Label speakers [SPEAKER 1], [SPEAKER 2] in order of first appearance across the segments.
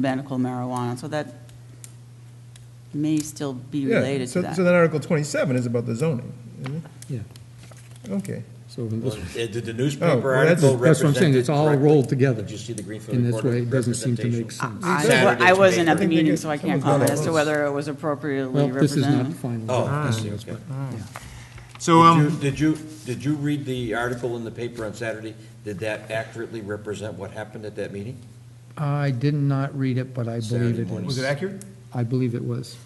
[SPEAKER 1] medical marijuana, so that may still be
[SPEAKER 2] Yeah,
[SPEAKER 1] related to
[SPEAKER 2] so-
[SPEAKER 1] that.
[SPEAKER 2] So then Article 27 is about the zoning, isn't it?
[SPEAKER 3] Yeah,
[SPEAKER 2] Okay.
[SPEAKER 3] so in this-
[SPEAKER 4] Well, Did the
[SPEAKER 2] Oh,
[SPEAKER 4] newspaper
[SPEAKER 2] well, that's-
[SPEAKER 4] article represent it
[SPEAKER 3] that's what I'm saying, it's all
[SPEAKER 4] correctly?
[SPEAKER 3] rolled together.
[SPEAKER 4] Did you see the Greenfield
[SPEAKER 3] in this
[SPEAKER 4] Reporter
[SPEAKER 3] way, it doesn't seem to make
[SPEAKER 4] representation?
[SPEAKER 3] sense.
[SPEAKER 1] I-
[SPEAKER 4] Saturday's
[SPEAKER 1] I wasn't at the
[SPEAKER 2] I
[SPEAKER 4] paper.
[SPEAKER 2] think they
[SPEAKER 1] meeting,
[SPEAKER 2] get-
[SPEAKER 1] so I can't
[SPEAKER 2] someone's got
[SPEAKER 1] comment
[SPEAKER 2] all
[SPEAKER 1] as to
[SPEAKER 2] those.
[SPEAKER 1] whether it was
[SPEAKER 3] Well,
[SPEAKER 1] appropriately
[SPEAKER 3] this is not
[SPEAKER 1] represented.
[SPEAKER 3] final.
[SPEAKER 4] Oh, I see, okay.
[SPEAKER 5] So, um,
[SPEAKER 4] Did you, did you read the article in the paper on Saturday? Did that accurately represent what happened at that meeting?
[SPEAKER 3] I did not read it, but I believe
[SPEAKER 4] Saturday
[SPEAKER 3] it
[SPEAKER 4] morning.
[SPEAKER 3] was.
[SPEAKER 5] was it accurate?
[SPEAKER 3] I believe it was.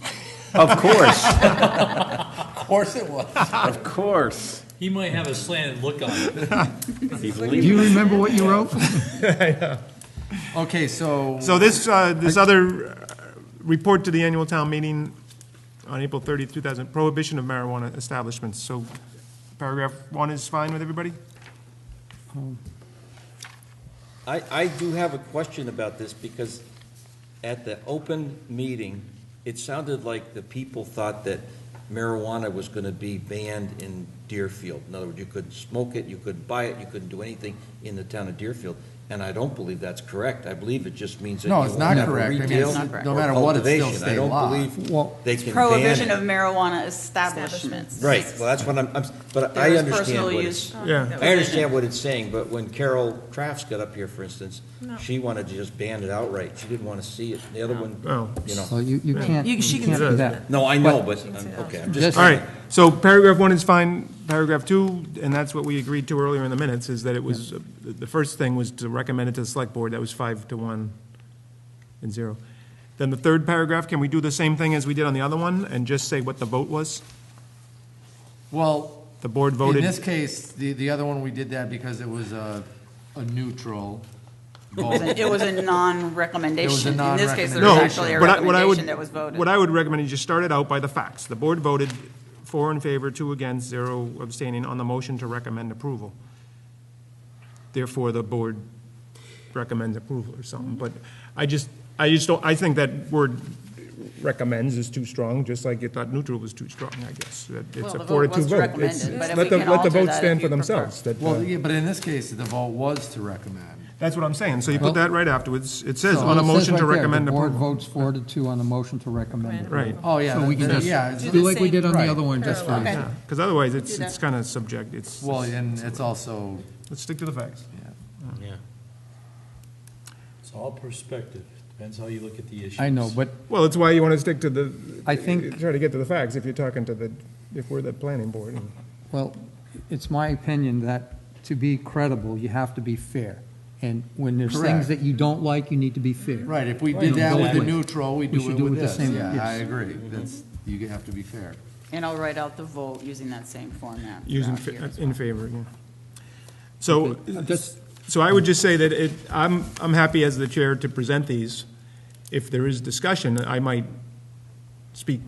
[SPEAKER 6] Of course,
[SPEAKER 4] Of course it was.
[SPEAKER 6] of course.
[SPEAKER 7] He might have a slanted look on it.
[SPEAKER 3] Do you remember what you wrote?
[SPEAKER 6] Okay, so.
[SPEAKER 2] So this, uh, this other uh, report to the annual town meeting on April 30, 2000, prohibition of marijuana establishments. So paragraph one is fine with everybody?
[SPEAKER 4] I, I do have a question about this because at the open meeting, it sounded like the people thought that marijuana was going to be banned in Deerfield. In other words, you could smoke it, you could buy it, you couldn't do anything in the town of Deerfield. And I don't believe that's correct. I believe it just means that you
[SPEAKER 6] No, it's not
[SPEAKER 4] won't have a
[SPEAKER 6] correct. I mean,
[SPEAKER 4] retail
[SPEAKER 6] it's not- no
[SPEAKER 4] or
[SPEAKER 6] matter what, it's still
[SPEAKER 4] cultivation.
[SPEAKER 6] state
[SPEAKER 4] I
[SPEAKER 6] law.
[SPEAKER 4] don't
[SPEAKER 3] Well-
[SPEAKER 4] believe they can ban it.
[SPEAKER 1] Prohibition of marijuana establishments.
[SPEAKER 4] Right, well, that's what I'm, I'm- but
[SPEAKER 1] There
[SPEAKER 4] I
[SPEAKER 1] was
[SPEAKER 4] understand
[SPEAKER 1] personal
[SPEAKER 4] what
[SPEAKER 1] use.
[SPEAKER 4] it's.
[SPEAKER 2] Yeah.
[SPEAKER 4] I understand what it's saying, but when Carol Crafts got up here, for instance, she wanted to just ban it outright. She didn't want to see it. The other
[SPEAKER 2] No.
[SPEAKER 4] one, you
[SPEAKER 3] Well,
[SPEAKER 4] know.
[SPEAKER 3] you, you can't,
[SPEAKER 1] You-
[SPEAKER 3] you
[SPEAKER 1] she
[SPEAKER 3] can't
[SPEAKER 1] can-
[SPEAKER 3] do that.
[SPEAKER 4] No, I know, but, I'm- okay, I'm just.
[SPEAKER 3] This-
[SPEAKER 2] All right, so paragraph one is fine, paragraph two, and that's what we agreed to earlier in the minutes, is that it was, uh, the the first thing was to recommend it to the select board, that was five to one and zero. Then the third paragraph, can we do the same thing as we did on the other one, and just say what the vote was?
[SPEAKER 6] Well,
[SPEAKER 2] The board
[SPEAKER 6] in
[SPEAKER 2] voted?
[SPEAKER 6] this case, the, the other one, we did that because it was a, a neutral vote.
[SPEAKER 1] It was a non-recommendation. In this case, there was
[SPEAKER 2] No,
[SPEAKER 1] actually a
[SPEAKER 2] what I- what I would-
[SPEAKER 1] recommendation that was voted.
[SPEAKER 2] What I would recommend is you start it out by the facts. The board voted four in favor, two against, zero abstaining on the motion to recommend approval. Therefore, the board recommends approval or something, but I just, I just don't, I think that word recommends is too strong, just like you thought neutral was too strong, I guess. That
[SPEAKER 1] Well,
[SPEAKER 2] It's
[SPEAKER 1] the
[SPEAKER 2] a
[SPEAKER 1] vote
[SPEAKER 2] four to two
[SPEAKER 1] was
[SPEAKER 2] vote.
[SPEAKER 1] recommended,
[SPEAKER 2] It's-
[SPEAKER 1] but if
[SPEAKER 2] let
[SPEAKER 1] we can
[SPEAKER 2] the- let the
[SPEAKER 1] alter
[SPEAKER 2] votes
[SPEAKER 1] that
[SPEAKER 2] stand
[SPEAKER 1] if
[SPEAKER 2] for
[SPEAKER 1] you prefer.
[SPEAKER 2] themselves. that, uh,
[SPEAKER 6] Well, yeah, but in this case, the vote was to recommend.
[SPEAKER 2] That's what I'm saying, so you put that right afterwards. It says
[SPEAKER 3] So
[SPEAKER 2] on a
[SPEAKER 3] it says
[SPEAKER 2] motion
[SPEAKER 3] right
[SPEAKER 2] to
[SPEAKER 3] there,
[SPEAKER 2] recommend
[SPEAKER 3] The board
[SPEAKER 2] approval.
[SPEAKER 3] votes four to two on a motion to recommend.
[SPEAKER 2] Right.
[SPEAKER 6] Oh, yeah,
[SPEAKER 3] So we can
[SPEAKER 6] that-
[SPEAKER 3] just
[SPEAKER 6] yeah, it's-
[SPEAKER 3] do like we
[SPEAKER 8] same-
[SPEAKER 3] did on the
[SPEAKER 6] Right.
[SPEAKER 3] other one just
[SPEAKER 8] Parallel.
[SPEAKER 3] fine.
[SPEAKER 8] Okay.
[SPEAKER 2] Because otherwise, it's,
[SPEAKER 8] Do that.
[SPEAKER 2] it's kind of subject, it's,
[SPEAKER 6] Well, and it's also,
[SPEAKER 2] let's stick to the facts.
[SPEAKER 6] yeah.
[SPEAKER 4] Yeah.
[SPEAKER 7] It's all perspective. Depends how you look at the issue.
[SPEAKER 3] I know, but
[SPEAKER 2] Well, that's why you want to stick to the.
[SPEAKER 3] I think-
[SPEAKER 2] Try to get to the facts if you're talking to the, if we're the planning board. and-
[SPEAKER 3] Well, it's my opinion that to be credible, you have to be fair. And when there's
[SPEAKER 6] Correct.
[SPEAKER 3] things that you don't like, you need to be fair.
[SPEAKER 6] Right, if we did that with the neutral, we
[SPEAKER 3] We
[SPEAKER 6] do
[SPEAKER 3] should
[SPEAKER 6] it
[SPEAKER 3] do it
[SPEAKER 6] with
[SPEAKER 3] the
[SPEAKER 6] this.
[SPEAKER 3] same,
[SPEAKER 6] Yeah,
[SPEAKER 3] yes.
[SPEAKER 6] I agree. That's, you have to be fair.
[SPEAKER 1] And I'll write out the vote using that same format.
[SPEAKER 2] Using,
[SPEAKER 1] throughout here as well.
[SPEAKER 2] in favor, yeah. So, uh,
[SPEAKER 3] Okay, just-
[SPEAKER 2] so I would just say that it, I'm, I'm happy as the chair to present these. If there is discussion, I might speak,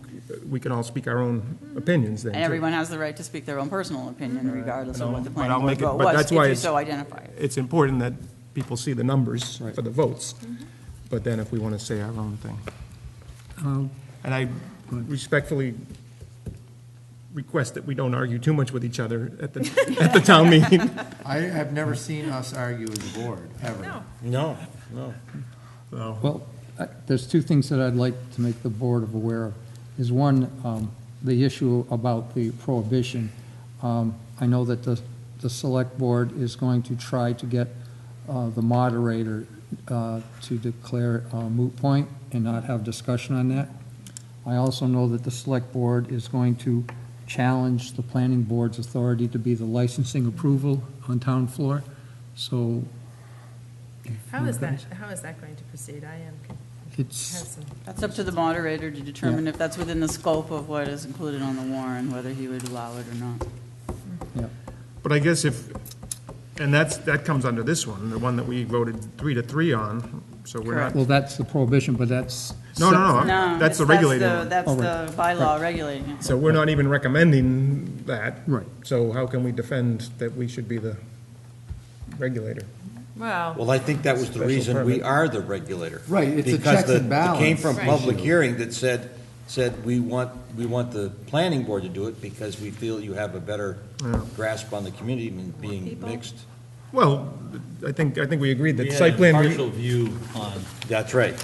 [SPEAKER 2] we can all speak our own opinions then.
[SPEAKER 1] And
[SPEAKER 2] too.
[SPEAKER 1] everyone has the right to speak their own personal opinion regardless of what the
[SPEAKER 2] But
[SPEAKER 1] planning
[SPEAKER 2] I'll
[SPEAKER 1] board
[SPEAKER 2] make it-
[SPEAKER 1] vote
[SPEAKER 2] but
[SPEAKER 1] was,
[SPEAKER 2] that's
[SPEAKER 1] if
[SPEAKER 2] why
[SPEAKER 1] you
[SPEAKER 2] it's-
[SPEAKER 1] so identify it.
[SPEAKER 2] It's important that people see the numbers for
[SPEAKER 3] Right.
[SPEAKER 2] the votes, but then if we want to say our own thing.
[SPEAKER 3] Um,
[SPEAKER 2] And I respectfully request that we don't argue too much with each other at the, at the town meeting.
[SPEAKER 6] I have never seen us argue as a board, ever.
[SPEAKER 4] No, no.
[SPEAKER 3] Well, I- there's two things that I'd like to make the board of aware of. Is one, um, the issue about the prohibition. Um, I know that the, the select board is going to try to get uh, the moderator uh, to declare it a moot point and not have discussion on that. I also know that the select board is going to challenge the planning board's authority to be the licensing approval on town floor. So
[SPEAKER 8] How is that, how is that going to proceed? I am,
[SPEAKER 3] it's.
[SPEAKER 8] have some,
[SPEAKER 1] That's up to the moderator to determine if that's within the scope of what is included on the warrant, whether he would allow it or not.
[SPEAKER 2] But I guess if, and that's, that comes under this one, the one that we voted three to three on, so we're not.
[SPEAKER 3] Well, that's the prohibition, but that's.
[SPEAKER 2] No,
[SPEAKER 1] No,
[SPEAKER 2] no, no, that's the
[SPEAKER 1] it's-
[SPEAKER 2] regulating
[SPEAKER 1] the-
[SPEAKER 2] one.
[SPEAKER 1] That's
[SPEAKER 3] Oh, right.
[SPEAKER 1] the bylaw regulating it.
[SPEAKER 2] So we're not even recommending that.
[SPEAKER 3] Right.
[SPEAKER 2] So how can we defend that we should be the regulator?
[SPEAKER 8] well,
[SPEAKER 4] Well, I think that was the
[SPEAKER 2] Special
[SPEAKER 4] reason we
[SPEAKER 2] permit.
[SPEAKER 4] are the regulator.
[SPEAKER 6] Right, it's a
[SPEAKER 4] Because
[SPEAKER 6] checks
[SPEAKER 4] the-
[SPEAKER 6] and
[SPEAKER 4] It came
[SPEAKER 6] balance
[SPEAKER 4] from public
[SPEAKER 6] issue.
[SPEAKER 4] hearing that said, said, we want, we want the planning board to do it because we feel you have a better grasp on the community than being
[SPEAKER 8] people.
[SPEAKER 4] mixed.
[SPEAKER 2] Well, I think, I think we agreed
[SPEAKER 7] We
[SPEAKER 2] that
[SPEAKER 7] had
[SPEAKER 2] site
[SPEAKER 7] a
[SPEAKER 2] plan, re-
[SPEAKER 7] Partial view on,
[SPEAKER 4] That's right.